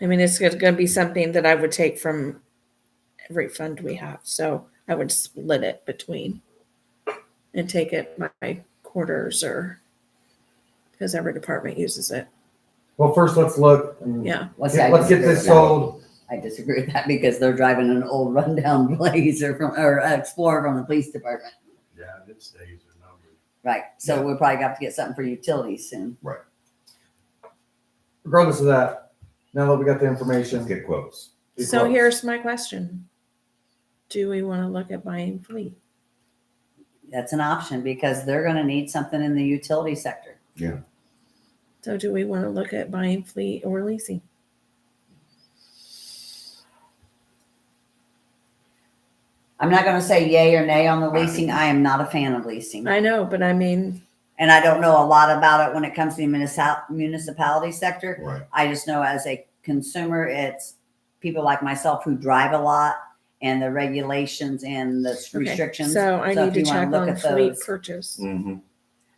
I mean, it's going to be something that I would take from every fund we have. So I would split it between and take it by quarters or because every department uses it. Well, first, let's look. Mm. and Yeah. Let's, get- Let's get this sold. I disagree with that because they're driving an old rundown Blazer from, or Explorer from the police department. Yeah, its days are numbered. Right. So we'll probably have to get something for utilities soon. Regardless of that, now that we got the information. Let's get quotes. be So close. here's my question. Do we want to look at buying fleet? That's an option because they're gonna need something in the utility sector. So do we want to look at buying fleet or leasing? I'm not gonna say yay or nay on the leasing. I am not a fan of leasing. I know, but I mean, And I don't know a lot about it when it comes to the municipal, municipality sector. Right. I just know as a consumer, it's people like myself who drive a lot and the regulations and the okay, restrictions. so I So need if to you wanna check look on at fleet those. purchase. Mm-hmm.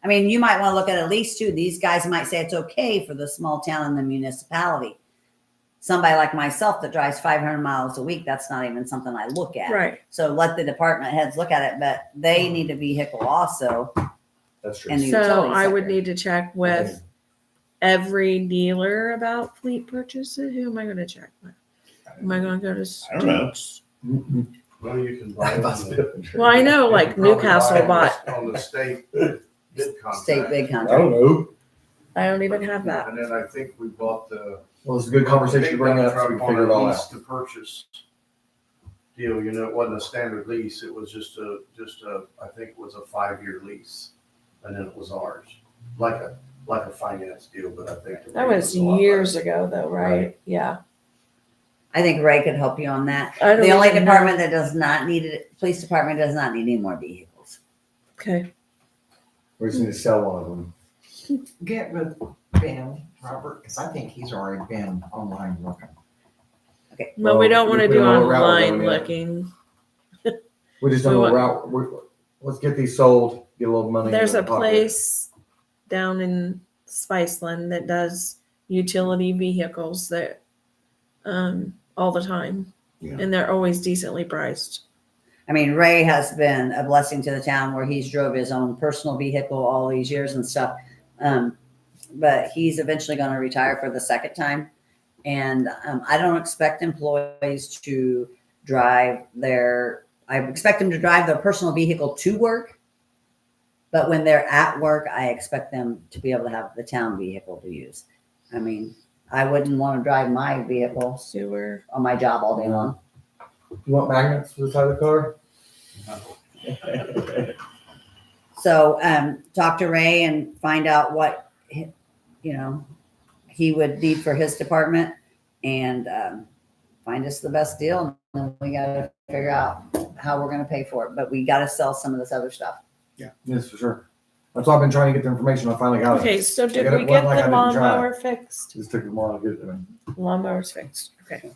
I mean, you might want to look at at least two. These guys might say it's okay for the small town and the municipality. Somebody like myself that drives 500 miles a week, that's not even something I look at. Right, So let the department heads look at it, but they need a vehicle also. That's true. And the so utility I would sector. need to check with every dealer about fleet purchases. Who am I going to check with? Am I going to go to? I don't know. Stokes? Mhm. Well, you can buy. on the- Well, I know you like can probably buy Newcastle on bought, the- On the state bid contract. State big I contract. don't know. I don't even have that. And then I think we bought the. Well, it's a good conversation to bring up. so we can Big contract figure it on all a out. lease to purchase deal, you know, it wasn't a standard lease, it was just a, just a, I think it was a five-year lease. And then it was ours, like a, like a finance deal, but I think. the That rate was a lot years better. ago though, right? Yeah. I think Ray could help you on that. I don't The only even know. department that does not need it, police department does not need any more vehicles. Okay, We just need to sell one of them. get with Ben, Robert, because I think he's already been online looking. but we Well, don't want to we do don't know what route we're online going yet. looking. We just don't know We what route. we let's get these sold, get a little money. in There's the a pocket. place down in Spiceland that does utility vehicles that um all the time. Yeah. And they're always decently priced. I mean, Ray has been a blessing to the town where he's drove his own personal vehicle all these years and stuff. Um, but he's eventually going to retire for the second time. And um, I don't expect employees to drive their, I expect them to drive their personal vehicle to work. But when they're at work, I expect them to be able to have the town vehicle to use. I mean, I wouldn't want to drive my vehicle Sewer. on my job all day long. You want magnets for the side of the car? So um, talk to Ray and find out what, hi- you know, he would need for his department and um, find us the best deal. And then we got to figure out how we're going to pay for it, but we got to sell some of this other stuff. Yes, for sure. That's why I've been trying to get the information. I finally got it. Okay, so I did got we it get one like I the didn't try. lawnmower fixed? Just took them all to get it. done. Lawnmower's fixed. Okay.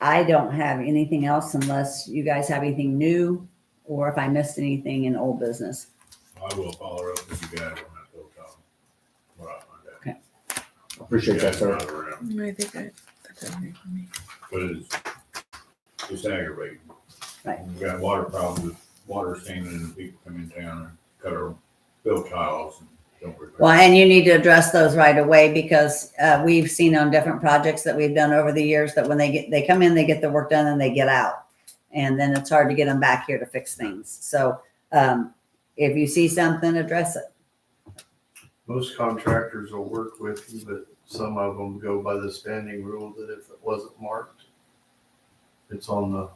I don't have anything else unless you guys have anything new or if I missed anything in old business. I will follow up with you guys on that, Bill Tom. What I find out. Appreciate that, You sir. guys are around, I think I, that's everything for me. But it's, it's aggravating. Right. We've got water problems, water standing and people come in town and cut our bill tiles and don't repair. Well, and you need to address those right away because uh, we've seen on different projects that we've done over the years that when they get, they come in, they get the work done and they get out. And then it's hard to get them back here to fix things. So um, if you see something, address it. Most contractors will work with you, but some of them go by the standing rule that if it wasn't marked, it's on the.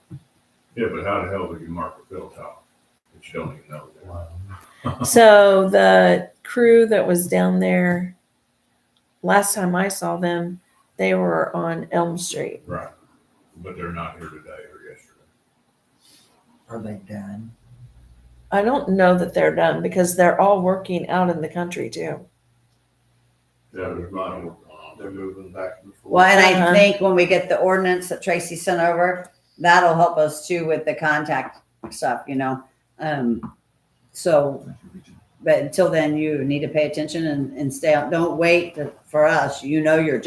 Yeah, but how the hell would you mark a bill tile that you don't even know? Uh-huh. So the crew that was down there, last time I saw them, they were on Elm Street. Right, but they're not here today or yesterday. Are they done? I don't know that they're done because they're all working out in the country too. Yeah, there's not, they're moving back and forth. Well, and Uh-huh. I think when we get the ordinance that Tracy sent over, that'll help us too with the contact stuff, you know? Um, so But until then, you need to pay attention and, and stay on. Don't wait to- for us. You know your